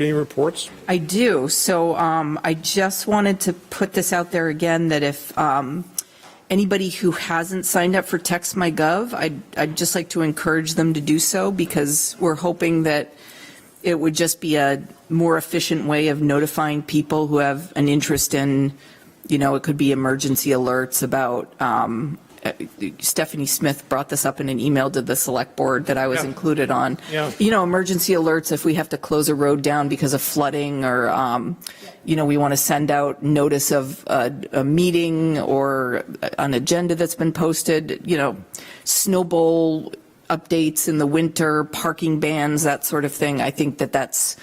Any reports? I do. So um, I just wanted to put this out there again, that if um, anybody who hasn't signed up for Text My Gov, I'd, I'd just like to encourage them to do so because we're hoping that it would just be a more efficient way of notifying people who have an interest in, you know, it could be emergency alerts about, um, uh, Stephanie Smith brought this up in an email to the select board that I was Yeah. included on. Yeah. You know, emergency alerts if we have to close a road down because of flooding or, um, you know, we want to send out notice of a, a meeting or an agenda that's been posted, you know, snowball updates in the winter, parking bans, that sort of thing. I think that that's,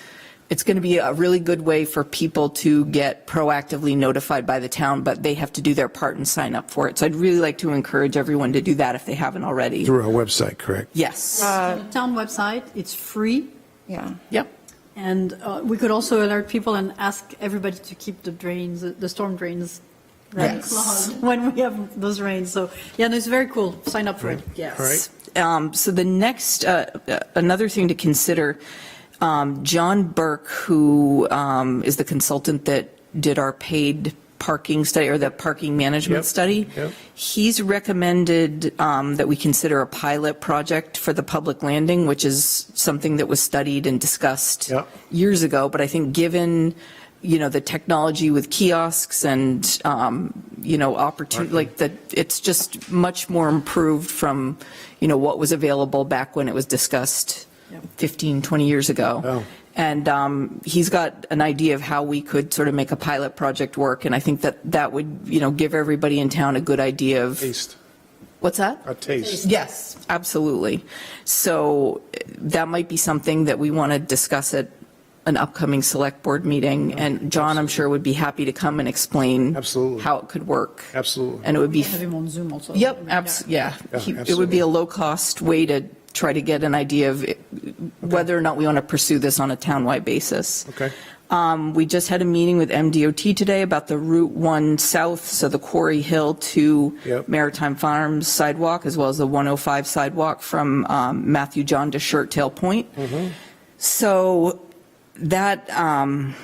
it's going to be a really good way for people to get proactively notified by the town, but they have to do their part and sign up for it. So I'd really like to encourage everyone to do that if they haven't already. Through our website, correct? Yes. town website, it's free, Yeah. Yep. and uh, we could also alert people and ask everybody to keep the drains, the storm drains running Yes. clogged when we have those rains, so, yeah, no, it's very cool, sign up for it. Yes. Um, So the next, uh, uh, another thing to consider, um, John Burke, who um, is the consultant that did our paid parking study, or the parking management Yep, study, yep. he's recommended um, that we consider a pilot project for the public landing, which is something that was studied and discussed Yep. years ago, but I think given, you know, the technology with kiosks and, um, you know, opportunity, like the, it's just much more improved from, you know, what was available back when it was discussed 15, 20 years Oh. ago. And um, he's got an idea of how we could sort of make a pilot project work, and I think that that would, you know, give everybody in town a good idea of, Taste, what's that? a taste. Yes, absolutely. So eh, that might be something that we want to discuss at an upcoming select board meeting. And John, I'm sure, would be happy to come and explain. Absolutely. How it could work. Absolutely. And it would be, Have him on Zoom also. yep, abs, yeah. Yeah, He- It would be absolutely. a low-cost way to try to get an idea of eh, whether or not we want to pursue this on a townwide basis. Okay. Um, We just had a meeting with MDOT today about the Route 1 South, so the Quarry Hill to Yep. Maritime Farms sidewalk, as well as the 105 sidewalk from um, Matthew John to Shirt Tail Point. Mm-hmm. So that, um,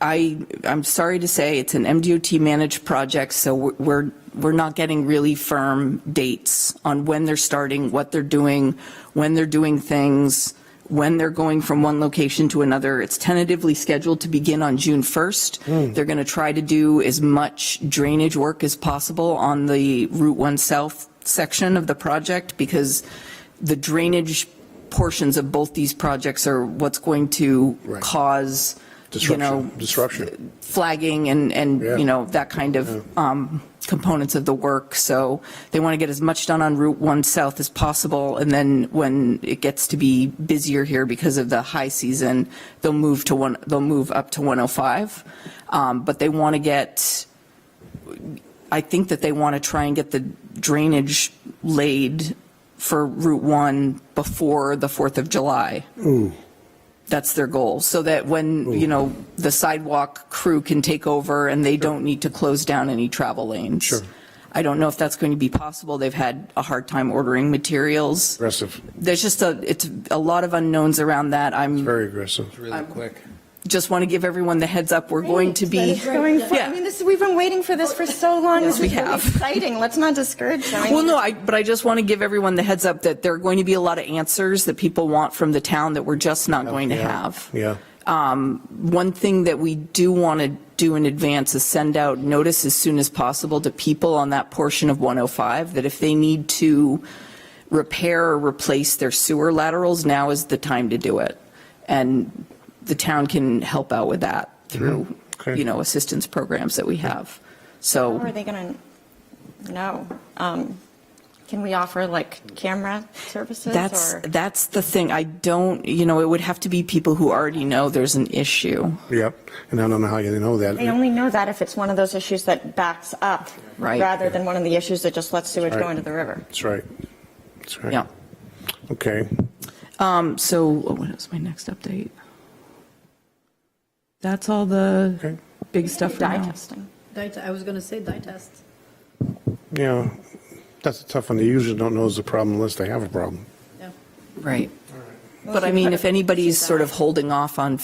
I, I'm sorry to say, it's an MDOT-managed project, so we're, we're not getting really firm dates on when they're starting, what they're doing, when they're doing things, when they're going from one location to another. It's tentatively scheduled to begin on June 1st. They're going to try to do as much drainage work as possible on the Route 1 South section of the project, because the drainage portions of both these projects are what's going to Right. cause, you know, Disruption, disruption. flagging and, and, Yeah. you know, that kind of um, components of the work. So they want to get as much done on Route 1 South as possible. And then when it gets to be busier here because of the high season, they'll move to one, they'll move up to 105. Um, But they want to get, I think that they want to try and get the drainage laid for Route 1 before the 4th of July. That's their goal, so that when, you know, the sidewalk crew can take over and they don't need to close down any travel lanes. Sure. I don't know if that's going to be possible. They've had a hard time ordering materials. Aggressive, There's just a, it's a lot of unknowns around that. I'm, very aggressive. really quick. just want to give everyone the heads up, we're going to be. Going for, I Yeah. mean, this, we've been waiting for this for so long. This we is really have. Exciting. Let's not discourage them. I Well, mean, no, I, but I just want to give everyone the heads up that there are going to be a lot of answers that people want from the town that we're just not going to Oh, Yeah, have. Um, Yeah, One thing that we do want to do in advance is send out notice as soon as possible to people on that portion of 105 that if they need to repair or replace their sewer laterals, now is the time to do it. And the town can help out with that through, Mm-hmm. Okay. you know, assistance programs that we have. So. How are they going to know? Um, Can we offer like camera services That's, or? that's the thing. I don't, you know, it would have to be people who already know there's an issue, yep. And I don't know how you know that. They only know that if it's one of those issues that backs up. Right. Rather than one of the issues that just lets sewage go Right. into the river. That's right. That's right. yeah. Okay. Um, So what is my next update? That's all the Okay. big stuff for Dye now. testing. Dye, I was going to say dye test. Yeah, that's a tough one. They usually don't know is a problem unless they have a problem. yeah. Right. But I mean, if anybody's sort of holding off on